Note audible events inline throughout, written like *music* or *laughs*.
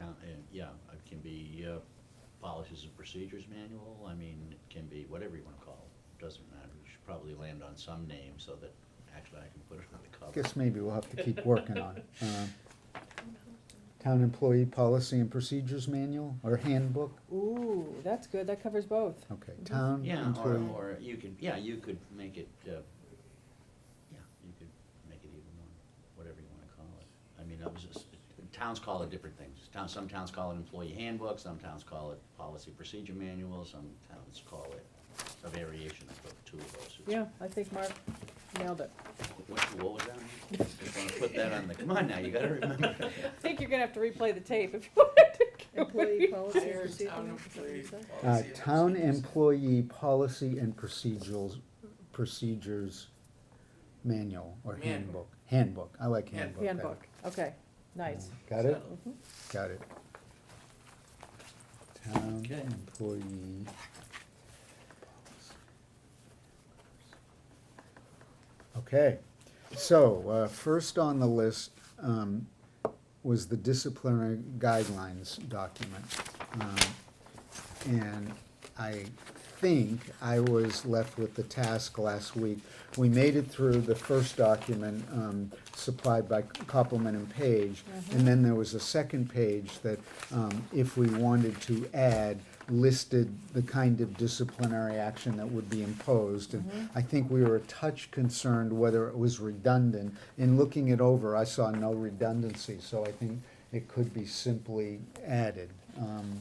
Hmm? uh, yeah, it can be uh, policies and procedures manual, I mean, it can be whatever you want to call it, doesn't matter. We should probably land on some name so that actually I can put it on the cover. Guess maybe we'll have to keep working on it. Uh, Town Employee Policy and Procedures Manual or Handbook? Ooh, that's good, that covers both. Okay, Town Yeah, or, Employee. or you could, yeah, you could make it, uh, yeah, you could make it even more, whatever you wanna call it. I mean, that was just, towns call it different things. Town, some towns call it employee handbook, some towns call it policy procedure manual, some towns call it a variation of the two of those. Yeah, I think Mark nailed it. What, what was that? Just wanna put that on the, come on now, you gotta remember. *laughs* I think you're gonna have to replay the tape if you want to. *laughs* Employee policy and Town procedure, employee is that what you said? Uh, policy and Town procedures. Employee Policy and Procedures, Procedures Manual or Manual. Handbook. Handbook, I like handbook. better. Handbook, okay, nice. Got it? Mhm. Got it. Town Okay. employee. Okay, so, uh, first on the list, um, was the disciplinary guidelines document. Um, And I think I was left with the task last week. We made it through the first document, um, supplied by Copeland and Page. And then there was a second page that, um, if we wanted to add, listed the kind of disciplinary action that would be imposed. And I think we were a touch concerned whether it was redundant. In looking it over, I saw no redundancy, so I think it could be simply added, um,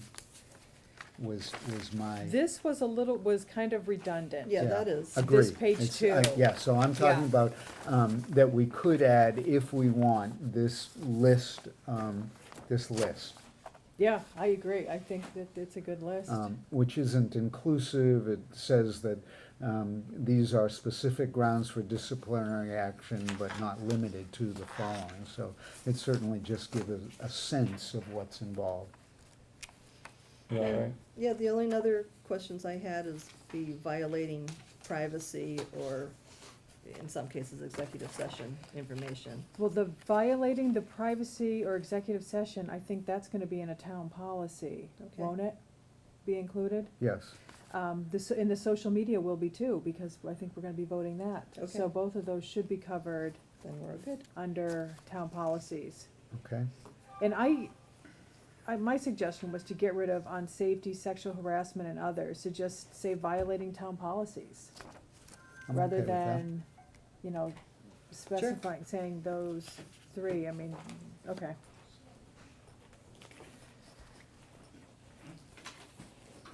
was, was my. This was a little, was kind of redundant. Yeah, that is. Agreed. This page It's- I- two. Yeah, so I'm talking Yeah. about, um, that we could add, if we want, this list, um, this list. Yeah, I agree, I think that it's a good list. um, which isn't inclusive. It says that um, these are specific grounds for disciplinary action, but not limited to the following. So it certainly just gives a, a sense of what's involved. You all right? Yeah, the only other questions I had is the violating privacy or, in some cases, executive session information. Well, the violating the privacy or executive session, I think that's gonna be in a town policy, Okay. won't it? Be included? Yes. Um, this, and the social media will be too, because I think we're gonna be voting that. So Okay. both of those should be covered Then we're good. under town policies. Okay. And I, I, my suggestion was to get rid of on safety, sexual harassment and others, to just say violating town policies. I'm Rather okay with that. than, you know, specifying, saying those three, I mean, okay.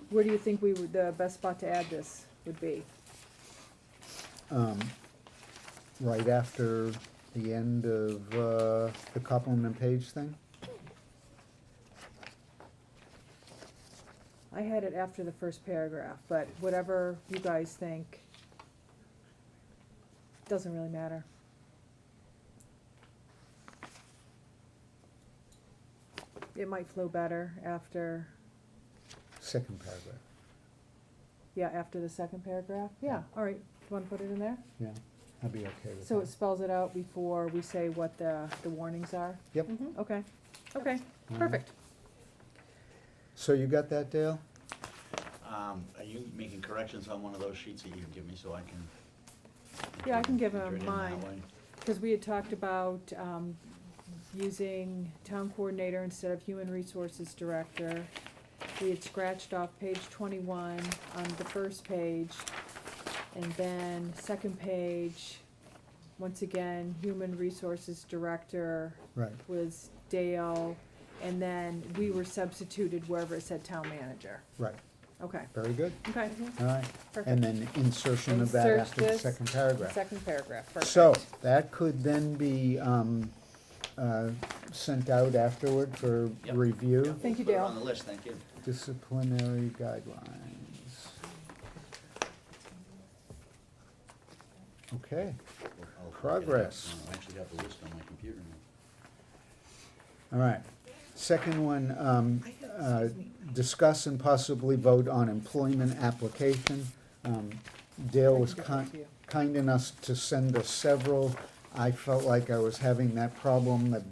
Where do you think we would, the best spot to add this would be? Um, right after the end of uh, the Copeland and Page thing. I had it after the first paragraph, but whatever you guys think, doesn't really matter. It might flow better after, Second paragraph. yeah, after the second paragraph, yeah, all right, do you wanna put it in there? Yeah, I'd be okay with So that. it spells it out before we say what the, the warnings are? Yep. Okay, okay, Mhm. perfect. So you got that, Dale? Um, are you making corrections on one of those sheets that you can give me so I can? Yeah, I can give enter him it in that mine. way? Because we had talked about um, using town coordinator instead of human resources director. We had scratched off page twenty-one on the first page. And then second page, once again, human resources director Right. was Dale. And then we were substituted wherever it said town manager. Right. Okay, Very good. okay, All right. perfect. And then insertion of that Insert after the this. second paragraph. Second paragraph, perfect. So, that could then be, um, uh, sent out afterward for Yep. Yeah, review, Thank you, put it Dale. on the list, thank you. disciplinary guidelines. I'll- Okay, I'll get it up. Progress. No, I actually have the list on my computer now. all right. Second one, um, uh, discuss and possibly vote on employment application. Um, Dale was I can get kind, that to you. kind enough to send us several. I felt like I was having that problem that